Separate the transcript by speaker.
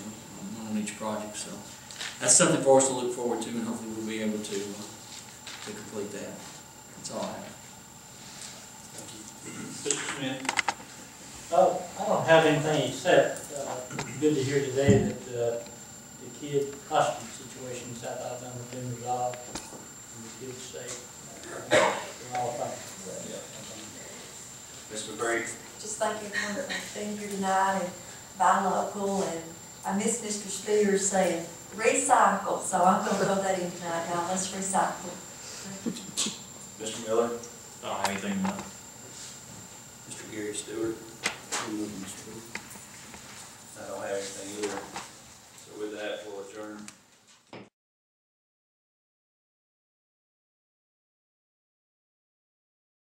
Speaker 1: each project, so that's something for us to look forward to, and hopefully we'll be able to, uh, to complete that. That's all I have.
Speaker 2: Mr. Smith,
Speaker 3: Uh, I don't have anything except, uh, it's good to hear today that, uh, the kid hostage situation in South Alabama has been resolved, and the kid's safe. We're all thankful
Speaker 2: Mr. McBrady,
Speaker 4: Just thank everyone for being here tonight and buy local, and I miss Mr. Spear saying recycle, so I'm gonna throw that in tonight, y'all, let's recycle.
Speaker 2: Mr. Miller,
Speaker 5: I don't have anything to
Speaker 2: Mr. Gary Stewart. I don't have anything either. So with that, we'll adjourn.